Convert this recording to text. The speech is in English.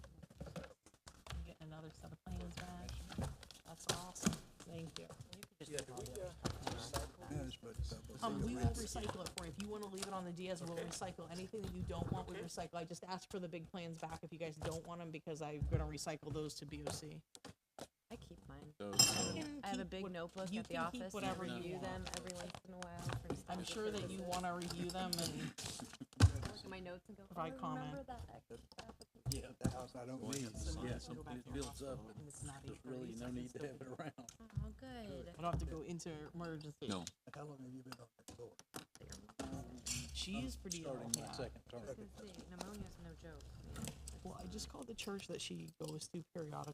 another set of plans back. That's awesome, thank you. uh, Um, we will recycle it for you, if you wanna leave it on the DS, we'll recycle, anything that you don't want, we recycle, I just asked for the big plans back if you guys don't want them, because I'm gonna recycle those to BOC. I keep mine. You can I have a keep big what- notebook you at the can keep office. and I whatever you review want. them every once in a while. for I'm study sure that you purposes. wanna review them and Look at my notes and go, oh, provide remember comment. that. Yeah, the house I don't need. Yeah, so it builds up and And it's not there's eight really thirty, so no I can need to still have do it around. Oh, good. I don't have to go into emergency. No. How long have you been on that board? She's pretty ill, Starting my yeah. second term. I was gonna say, pneumonia's no joke. Well, I just called the church that she goes to periodically